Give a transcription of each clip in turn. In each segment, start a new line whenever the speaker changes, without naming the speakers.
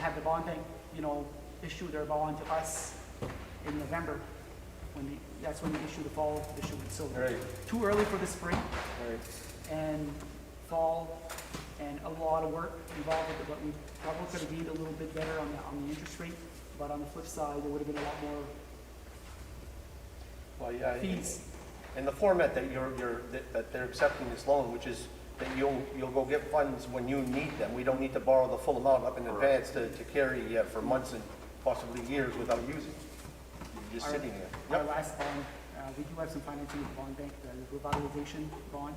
have the bond bank, you know, issue their bond to us in November, when the, that's when they issue the fall issuance, so.
Right.
Too early for the spring
Right.
and fall, and a lot of work involved with it, but we probably could have been a little bit better on the, on the interest rate, but on the flip side, there would have been a lot more
Well, yeah. I-
fees.
And the format that you're, you're, that- that they're accepting this loan, which is that you'll, you'll go get funds when you need them. We don't need to borrow the full amount up in advance to, to carry uh, for months and possibly years without using. You're just
Our-
sitting there.
Our
Yep.
last bond, uh, we do have some financing with bond bank, the revitalization bond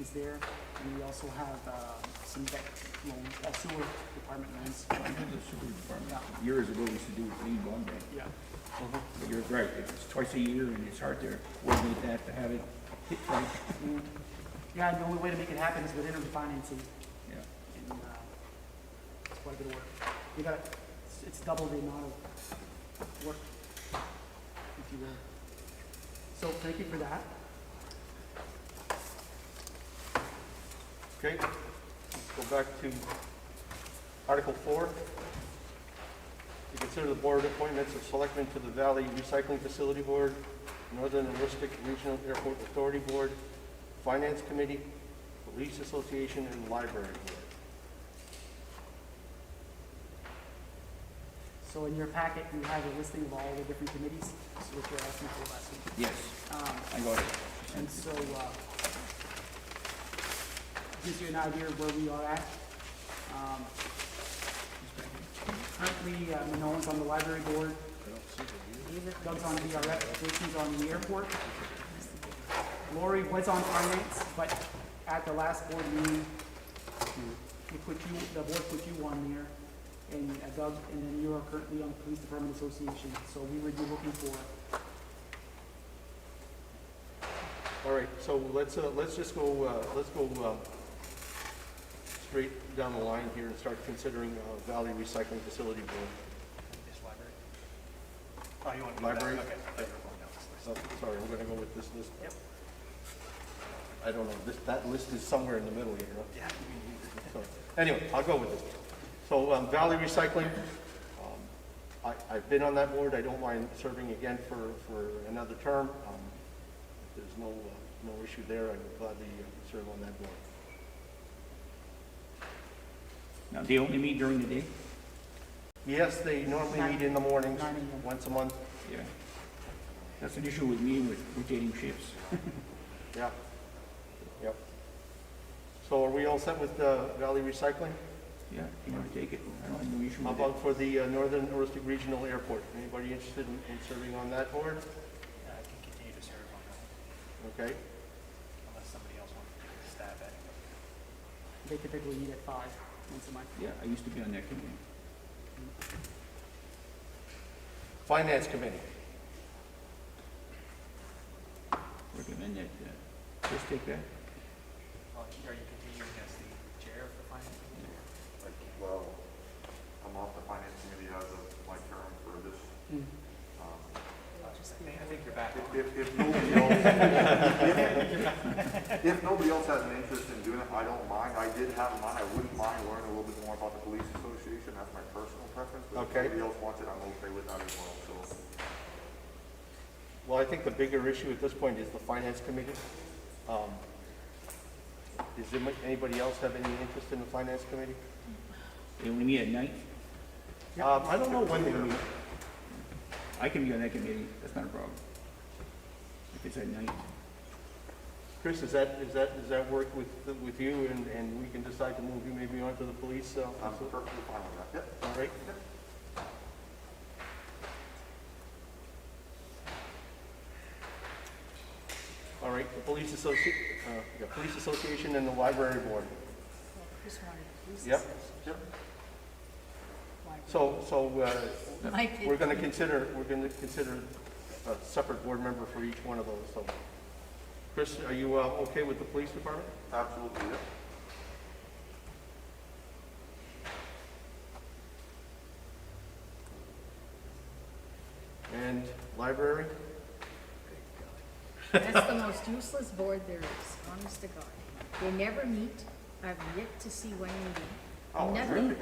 is there, and we also have, uh, some debt loans, uh, sewer department loans.
I know the super department, years ago, we used to do a clean bond bank,
Yeah,
but you're right, it's twice a year and it's hard to coordinate that to have it hit right.
Mm. yeah, and the only way to make it happen is with interim financing,
Yeah,
and, uh, it's quite a bit of work. We got, it's- it's double the amount of work, if you will. So thank you for that.
Okay, let's go back to Article Four. To consider the board appointments of selectmen to the Valley Recycling Facility Board, Northern and Rustic Regional Airport Authority Board, Finance Committee, Police Association, and Library Board.
So in your packet, you have a listing of all the different committees, so which you're asking for last week.
yes,
Um,
I got it.
And so, uh, gives you an idea of where we are at. Um, Currently, uh, Manon's on the library board. Doug's on VRF, Jason's on the airport. Lori was on finance, but at the last board meeting, we put you, the board put you on there, and uh, Doug, and then you are currently on the Police Department Association, so we would be looking for
All right, so let's, uh, let's just go, uh, let's go, um, straight down the line here and start considering, uh, Valley Recycling Facility Board.
Is library? Oh, you want to do that?
Library?
Okay. I thought you were going down this
So, sorry, we're gonna go with this list.
Yep.
I don't know, this, that list is somewhere in the middle here, huh?
list. Yeah.
So, Anyway, I'll go with this. So um, Valley Recycling, um, I, I've been on that board, I don't mind serving again for, for another term. Um, if There's no, uh, no issue there, I would gladly uh, serve on that board.
Now, they only meet during the day?
Yes, they normally meet in the mornings,
Nine AM.
once a month,
Yeah. That's an issue with me with rotating shifts.
yeah, yep. So are we all set with uh, Valley Recycling?
Yeah, if you want to take it, I don't have no issue
How
with it.
about for the uh, Northern Aristic Regional Airport? Anybody interested in in serving on that board?
Yeah, I can continue to serve on that,
Okay,
unless somebody else wants to take a stab at it.
They typically meet at five once a month.
Yeah, I used to be on that committee.
Finance Committee.
Recommend that, uh, just take that.
Well, Are you continuing as the chair of the finance committee?
Like, well, I'm off the finance committee as of my term for this.
Mm.
um,
I think- I think you're back
if-
on.
If, if nobody else, if- if nobody else has an interest in doing it, I don't mind. I did have mine. I wouldn't mind learning a little bit more about the police association. That's my personal preference. But if
Okay.
nobody else wants it, I'm okay with that as well, so.
Well, I think the bigger issue at this point is the finance committee. Um, Does anybo- anybody else have any interest in the finance committee?
They only meet at night?
Um, I don't know when they meet.
I can be on that committee, that's not a problem. If it's at night.
Chris, is that, is that, does that work with, with you and, and we can decide to move you maybe onto the police? uh,
I'm perfectly fine with that. Yep.
All right. All right, the police associ, uh, yeah, police association and the library board.
Chris wanted to use
Yep.
this.
Yep.
Why-
So, so, uh,
Mike,
We're gonna consider, we're gonna consider a separate board member for each one of those, so. Chris, are you, uh, okay with the police department?
Absolutely, yep.
And library?
That's the most useless board there is, honest to God. They never meet. I've yet to see one meeting.
Oh,
Nothing.
really?